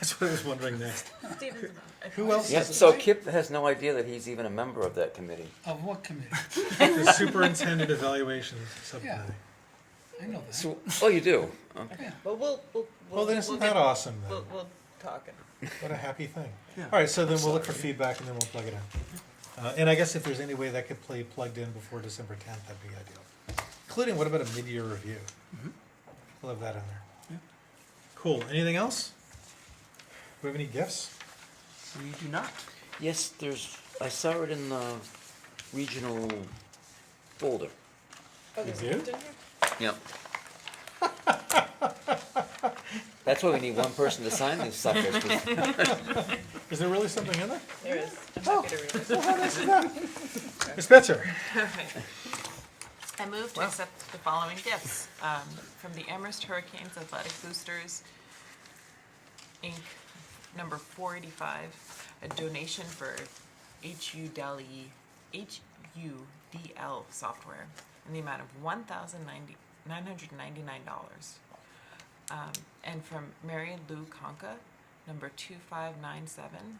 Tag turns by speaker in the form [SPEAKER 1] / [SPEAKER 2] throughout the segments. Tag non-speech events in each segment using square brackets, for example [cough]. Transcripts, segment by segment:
[SPEAKER 1] That's what I was wondering next.
[SPEAKER 2] Stephen's.
[SPEAKER 1] Who else
[SPEAKER 3] Yes, so Kip has no idea that he's even a member of that committee.
[SPEAKER 4] Of what committee?
[SPEAKER 1] The superintendent evaluations subcommittee.
[SPEAKER 4] I know that.
[SPEAKER 3] So, oh, you do? Okay.
[SPEAKER 2] Well, we'll, we'll.
[SPEAKER 1] Well, then isn't that awesome then?
[SPEAKER 2] We'll, we'll talk and.
[SPEAKER 1] What a happy thing. All right, so then we'll look for feedback and then we'll plug it in. Uh, and I guess if there's any way that could play plugged in before December tenth, that'd be ideal. Including, what about a mid-year review? We'll have that on there. Cool, anything else? Do we have any gifts?
[SPEAKER 5] We do not.
[SPEAKER 3] Yes, there's, I saw it in the regional folder.
[SPEAKER 2] Oh, there's a
[SPEAKER 1] do?
[SPEAKER 2] gift in here?
[SPEAKER 3] Yep. [laughs] That's why we need one person to sign these suckers. [laughs] 'cause-
[SPEAKER 1] Is there really something in there?
[SPEAKER 2] There is. I'm
[SPEAKER 1] Oh.
[SPEAKER 2] happy to read it.
[SPEAKER 1] Ms. Spencer?
[SPEAKER 6] I move to accept the following gifts um, from the Amherst Hurricanes Athletic Boosters, Inc., number 485, a donation for HUDL, HUDL software in the amount of $1,999. Um, And from Mary Lou Conca, number 2597,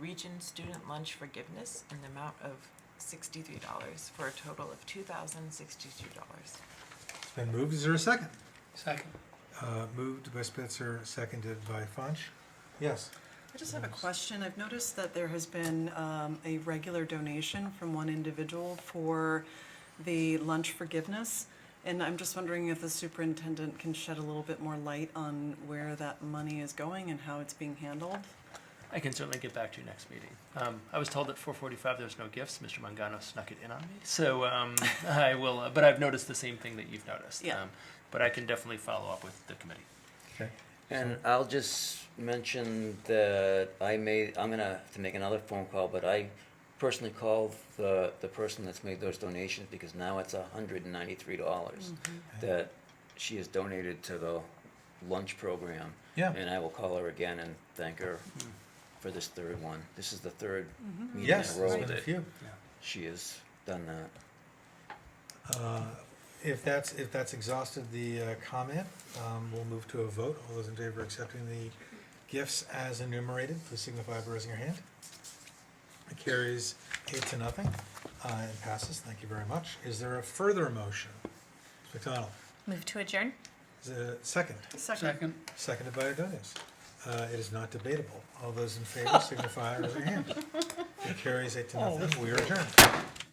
[SPEAKER 6] Region Student Lunch Forgiveness in the amount of sixty-three dollars for a total of two thousand sixty-two dollars.
[SPEAKER 1] It's been moved, is there a second?
[SPEAKER 4] Second.
[SPEAKER 1] Uh, moved by Spencer, seconded by Funch. Yes.
[SPEAKER 7] I just have a question. I've noticed that there has been um, a regular donation from one individual for the lunch forgiveness. And I'm just wondering if the superintendent can shed a little bit more light on where that money is going and how it's being handled.
[SPEAKER 5] I can certainly get back to you next meeting. Um, I was told at 4:45 there's no gifts. Mr. Mangano snuck it in on me, so um, [laughs] I will. Uh, but I've noticed the same thing that you've noticed.
[SPEAKER 7] Yeah.
[SPEAKER 5] Um, but I can definitely follow up with the committee.
[SPEAKER 1] Okay.
[SPEAKER 3] And I'll just mention that I made, I'm gonna have to make another phone call, but I personally called the, the person that's made those donations because now it's hundred and ninety-three
[SPEAKER 7] Mm.
[SPEAKER 3] dollars
[SPEAKER 1] Uh,
[SPEAKER 3] that she has donated to the lunch program.
[SPEAKER 1] Yeah. Mm.
[SPEAKER 3] And I will call her again and thank her for this third one. This is the third meeting in
[SPEAKER 1] Mm-hmm. Yes,
[SPEAKER 3] a
[SPEAKER 1] there's
[SPEAKER 3] row
[SPEAKER 1] been a
[SPEAKER 3] that
[SPEAKER 1] few.
[SPEAKER 3] she has done that.
[SPEAKER 1] Uh, If that's, if that's exhausted the uh, comment, um, we'll move to a vote. All those in favor of accepting the gifts as enumerated, please signify by raising your hand. It carries eight to nothing uh, and passes. Thank you very much. Is there a further motion? Ms. McDonald,
[SPEAKER 8] Move to adjourn?
[SPEAKER 1] is there a second?
[SPEAKER 4] Second.
[SPEAKER 1] Seconded by Adonis. Uh, It is not debatable. All those in favor signify by raising your hand. It carries eight to nothing. We are adjourned.